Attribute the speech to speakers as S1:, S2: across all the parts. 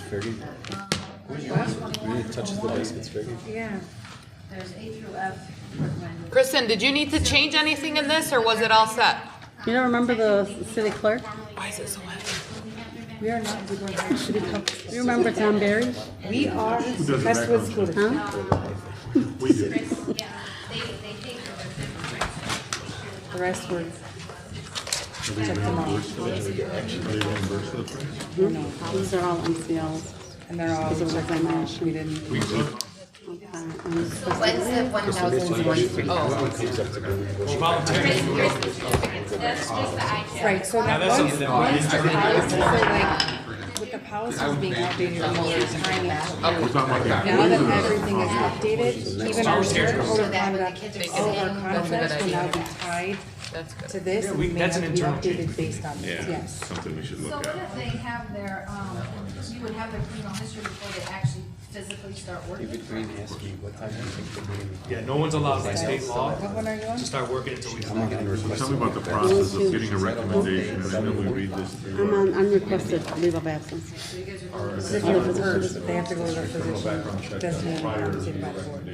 S1: Fergie? Really touches the biscuits, Fergie.
S2: Yeah.
S3: There's A through F for Glenwood.
S4: Kristen, did you need to change anything in this or was it all set?
S2: You don't remember the city clerk?
S4: Why is it so heavy?
S5: We are not doing that. Should it come?
S2: You remember Tom Barry?
S5: We are
S6: does
S5: Crestwood School District.
S2: Huh?
S6: We do.
S3: Yeah, they, they take over different
S5: The rest were.
S6: Are they reimbursed for that? Are they reimbursed for the price?
S2: These are all MCLs.
S5: And they're all checked by match. We didn't.
S6: We took,
S2: Okay, I'm just-
S7: When's the one thousand one for
S3: That's just the I check.
S5: Right, so that once, once the policies are like, with the policies being updated all the time now.
S6: we're talking about that.
S5: Now that everything is updated, even our shared code of
S7: They
S5: conduct,
S7: can-
S5: all of our contracts will now be tied
S4: That's good.
S5: to this. and
S8: we-
S5: may
S8: that's
S5: have
S8: an
S5: to be
S8: internal
S5: updated
S8: change.
S5: Based on this,
S6: Yeah,
S5: yes.
S6: something we should
S3: So
S6: look at.
S3: what if they have their, um, you would have their criminal history before they actually physically start working?
S1: David Green asked me, what time do you think the meeting?
S8: Yeah, no one's allowed by state law
S5: What one are you on?
S8: to start working until we.
S1: I'm not gonna request.
S6: Tell me about the process of getting a recommendation, and I know we read this through.
S2: I'm on unrequested leave of absence.
S5: So if you're first, they have to go to their physician, designated compensated by the board.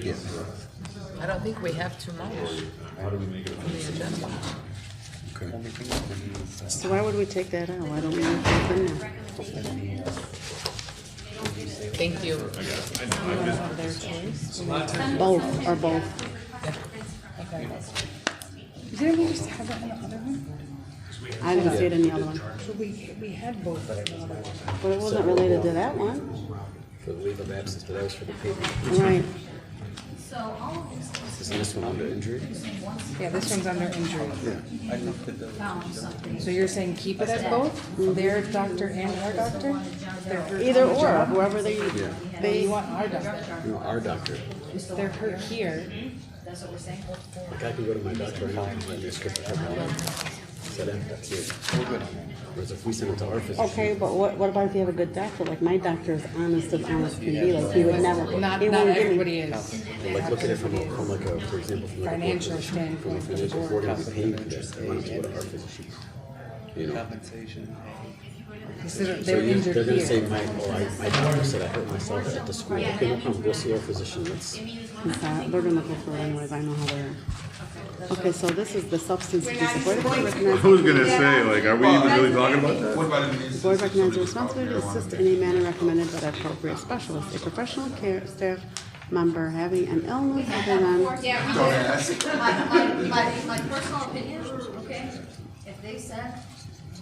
S4: I don't think we have too much on the agenda.
S1: Only thing that we need is, uh,
S2: So why would we take that out? Why don't we leave that in there?
S4: Thank you.
S5: Their choice.
S2: Both, or both.
S5: Didn't we just have that in the other one?
S2: I didn't see it in the other one.
S5: So we, we had both. in the other one.
S2: But it wasn't related to that one.
S1: For the leave of absence, but that was for the payment.
S2: Right.
S3: So all of these things
S1: Isn't this one under injury?
S5: Yeah, this one's under injury.
S1: I looked at the.
S3: found something.
S5: So you're saying keep it at both, their doctor and our doctor? They're hurt on
S2: Either
S5: the
S2: or,
S5: job.
S2: whoever they,
S5: You
S2: they,
S5: want our doctor,
S1: No, our doctor.
S5: they're hurt here,
S2: Mm-hmm.
S3: That's what we're saying.
S1: Like I could go to my doctor and I'll give my script for my life. So that, that's it. We're good on that. Whereas if we send it to our physician.
S2: okay, but what, what about if you have a good doctor? Like my doctor is honest as honest can be, like he would never, he
S5: not, not
S2: wouldn't give me.
S5: everybody is
S1: But like look at it from, a- from like a, for example, from like a board
S5: financial standpoint.
S1: If we're gonna be paying for this, they need to go to our physician. You know?
S5: Consider
S1: So
S5: they're
S1: you,
S5: injured
S1: they're gonna say,
S5: here.
S1: my, oh, I, my doctor said I hurt myself at the school. Okay, no problem, go see our physician, let's.
S2: It's not- We're gonna go for it anyways, I know how they are. Okay, so this is the substance abuse. The board recognizes
S6: I was gonna say, like, are we even really talking about that?
S2: The board recognizes the responsibility to assist in any manner recommended by the appropriate specialist, a professional care staff member having an illness other than
S3: Yeah, we do. My, my, my, my personal opinion, okay, if they said. then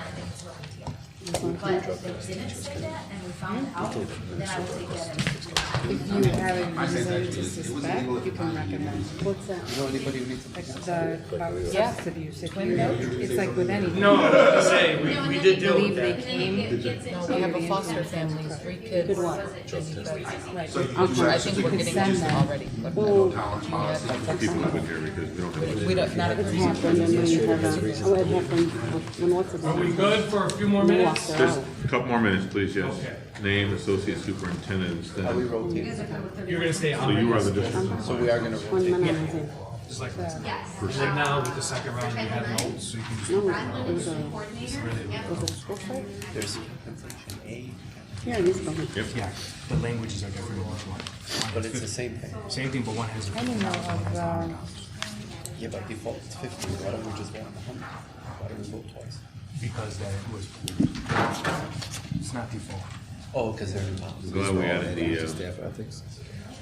S3: I think it's what we do. But if they didn't say that and we found out, then I would take that as.
S5: If you have a reason to suspect, you can recommend.
S2: what's that?
S5: Like the, about substance abuse, if you, it's like with anything.
S8: No, say, we, we did deal
S5: Believe
S8: with
S5: they
S8: that.
S5: came,
S4: No, we have a foster family, three kids. Good one. I
S2: Okay,
S4: think we're getting used to already.
S6: People have been here because we don't have.
S4: We don't, not a
S2: it happened and then you have a, oh, it happened with- when what's it?
S8: Are we good for a few more
S2: You
S4: Oh,
S8: minutes?
S2: walked her
S6: Just
S2: out.
S6: a couple more minutes, please, yes.
S8: Okay.
S6: Name, associate superintendent, instead. So
S8: You're gonna stay on,
S6: you are the district.
S1: So we are gonna roll.
S2: One minute, I think.
S8: just like, just like now with the second round, we have notes, so you can just.
S2: No, it was a, was it a school strike?
S1: There's compensation A,
S2: Here, in this building.
S6: Yep.
S8: Yeah, the languages are different in each one.
S1: but it's the same thing.
S8: Same thing, but one has.
S5: I don't know of, um,
S1: Yeah, by default it's fifty, why don't we just vote on the hundred? Why do we vote twice?
S8: Because that was, it's not default.
S1: Oh, because they're involved.
S6: I'm glad we added the, uh,
S1: Staff ethics.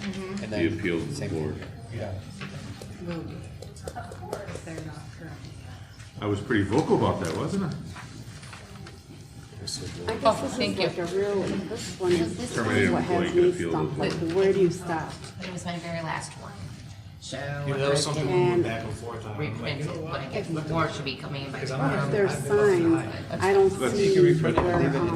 S1: And
S6: The
S1: then,
S6: appeal to the board.
S1: yeah,
S5: they're not hurt.
S6: I was pretty vocal about that, wasn't I?
S2: I guess
S4: Oh,
S2: this is
S4: thank you.
S2: like a real, this one is this is
S6: Terminated
S2: what
S6: employee
S2: has
S6: could
S2: me
S6: appeal
S2: stumped,
S6: the
S2: like, where do you stop?
S7: It was my very last one. So
S8: Yeah, that was something we went back and forth on. I'm like, you
S7: reprinted,
S8: know what?
S7: but I guess more should be coming in by
S8: Because I'm
S7: tomorrow.
S8: not-
S2: There's signs, I don't
S6: That's-
S2: see where, um,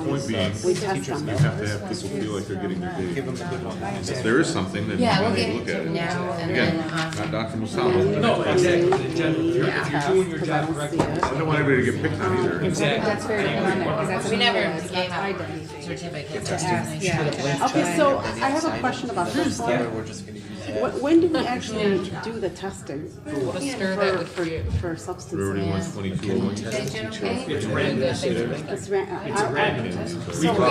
S6: Point being,
S2: we
S6: you
S2: test them.
S6: have to have people feel like they're getting their due. If there is something, then
S7: Yeah, we'll
S6: you
S7: get
S6: need to look
S7: it
S6: at it.
S7: now and
S6: Again,
S7: then, um,
S6: not Dr. Musama.
S8: No, exactly, in general, if you're, if you're doing your
S2: Because I don't
S8: job
S2: see
S8: correctly.
S2: it.
S6: I don't want everybody to get picked on either.
S5: That's very common, because that's
S7: We
S5: another
S7: never
S5: one, it's not
S7: gave
S5: tied
S7: out
S5: to anything.
S7: certificates.
S5: Ask- yeah, ask
S2: Okay,
S5: them.
S2: so I have a question about this one.
S1: we're just gonna use that.
S2: Wh- When do we actually do the testing?
S4: stir that
S2: For,
S4: would
S2: for, for substance
S6: Everybody
S2: abuse?
S6: wants twenty-two,
S7: Is it general pay?
S2: It's ra- uh,
S8: It's
S2: I-
S8: random.
S2: So